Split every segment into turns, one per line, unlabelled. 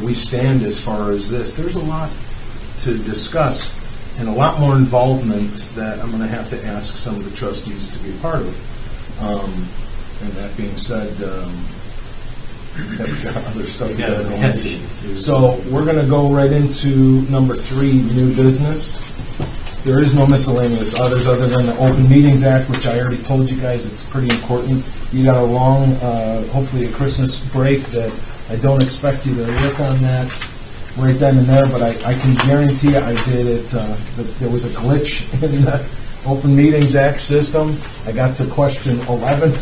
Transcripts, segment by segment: we stand as far as this. There's a lot to discuss and a lot more involvement that I'm going to have to ask some of the trustees to be a part of. Um, And that being said, um, we've got other stuff we
We've
got
got
to
other
go
ones.
into. So we're going to go right into number three, new business. There is no miscellaneous others other than the Open Meetings Act, which I already told you guys, it's pretty important. You got a long, uh, hopefully a Christmas break that I don't expect you to work on that right then and there, but I, I can guarantee you I did it, uh, that there was a glitch in the Open Meetings Act system. I got to question 11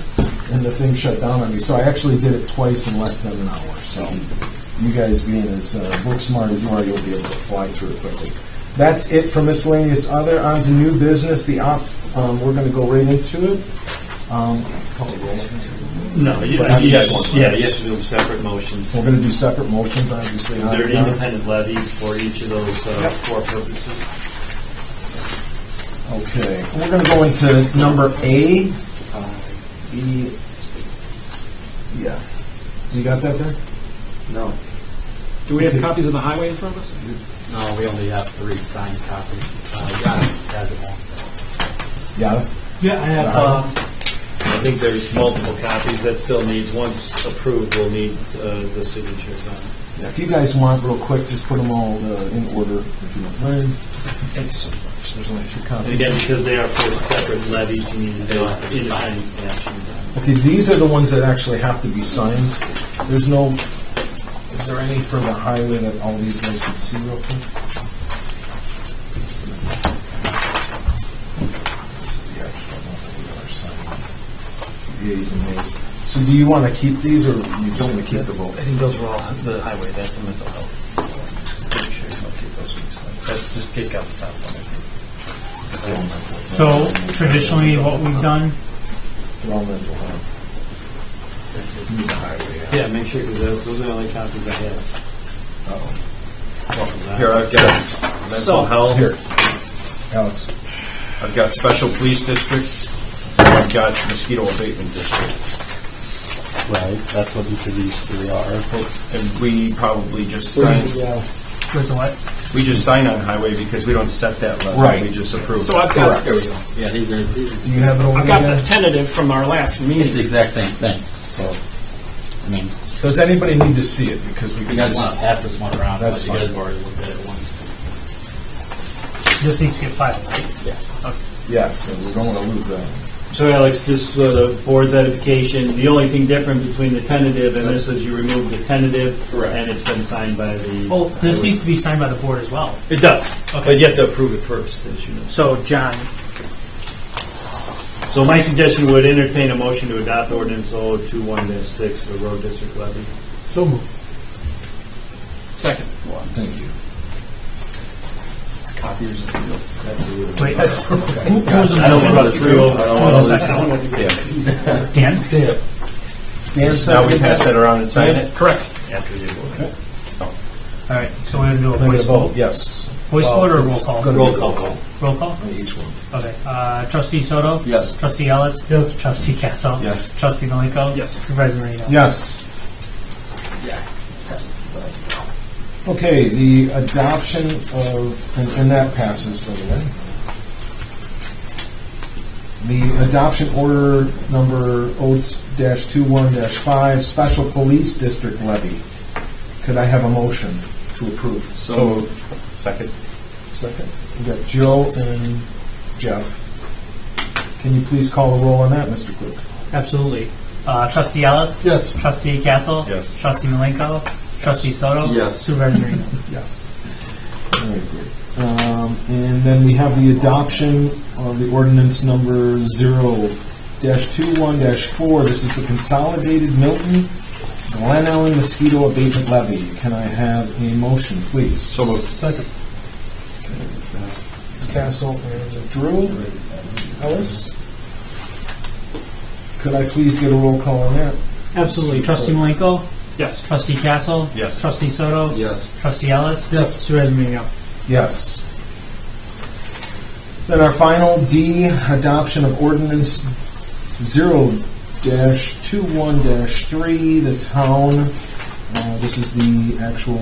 and the thing shut down on me. So I actually did it twice in less than an hour, so you guys being as uh, book smart as you are, you'll be able to fly through it quickly. That's it for miscellaneous other. On to new business, the op, um, we're going to go right into it. Um,
No, you,
But I
you have,
just want-
yeah, you have to do them separate motions.
We're going to do separate motions, obviously. on
They're
it now.
independent levies for each of those uh,
Yep.
four purposes.
Okay, we're going to go into number A. Uh, The, yeah, you got that there?
No.
Do we have copies of the highway in front of us?
No, we only have three signed copies. Uh, yeah, that's it.
Yeah.
Yeah, I have.
Um, I think there's multiple copies that still needs, once approved, we'll need uh, the signatures on. it.
Yeah, If you guys want, real quick, just put them all uh, in order, if you don't mind. Thank you so much. There's only three
And
copies.
again, because they are for separate levies, you need to do independent actions on. it.
Okay, these are the ones that actually have to be signed. There's no, is there any for the highway that all these guys can see real quick? This is the actual one that we are signing. Yeas and nays. So do you want to keep these, or you don't want to keep the vote?
think those were all the highway, that's a mental health. Just take out the top one, I think.
So traditionally, what we've done,
They're all mental health. You need the highway, yeah.
Yeah, make sure, because those are the only copies I have.
Here, I've got mental
Here,
Oh,
health,
Alex.
I've got special police district, and I've got mosquito abatement district.
Right, that's what each of these three are.
And we probably just sign,
where's the what?
we just sign on highway because we don't set that level.
Right.
We just approve.
So I've got,
Correct.
Yeah, these are, these
Do you have it over
I've
there?
got the tentative from our last
It's the
meeting.
exact same thing, so, I mean,
Does anybody need to see it? Because we
you
can
guys want
just,
to pass this one around,
That's
but
fine.
you guys have already looked at it once.
This needs to get filed, right?
yes, and we don't want to lose that.
So Alex, just for the board's edification, the only thing different between the tentative and this is you remove the tentative.
Correct. Oh,
And it's been signed by the.
Well, this needs to be signed by the board as well.
It does, but you have to approve it first, as you know.
So John,
So my suggestion would entertain a motion to adopt ordinance 021-6, the road district levy.
so moved.
Second.
Thank you.
Copiers just.
Wait, who was the
I don't want
motion?
to throw, I don't want to.
Dan?
Dan
Now we
seconded
pass that around and sign it?
Correct.
After they vote.
All right, so we're gonna do a
Then we
voice
vote,
vote.
yes.
Voice
Well,
vote or roll
it's
call?
gonna be
Roll call.
Roll call?
On each one.
Okay, uh, trustee Soto?
Yes.
Trustee Ellis? Yes. Trustee Castle?
Yes.
Trustee Malenko?
Yes.
Supervisor Marino?
Yes. Okay, the adoption of, and- and that passes, by the way. The adoption order number 0-21-5, special police district levy. Could I have a motion to approve?
So, second.
Second. We got Joe and Jeff. Can you please call the roll on that, Mr. Clerk?
Absolutely. Uh, trustee Ellis?
Yes.
Trustee Castle?
Yes.
Trustee Malenko? Trustee Soto?
Yes.
Supervisor Marino?
Yes. All right, great. Um, And then we have the adoption of the ordinance number zero dash two one dash four. This is the consolidated Milton Glen Ellen mosquito abatement levy. Can I have a motion, please?
So moved.
Second. It's Castle and Drew. Ellis? Could I please get a roll call on that?
Absolutely. Trustee Malenko?
Yes.
Trustee Castle?
Yes.
Trustee Soto?
Yes.
Trustee Ellis?
Yes.
Supervisor Marino?
Yes. Then our final D, adoption of ordinance zero dash two one dash three, the town, uh, this is the actual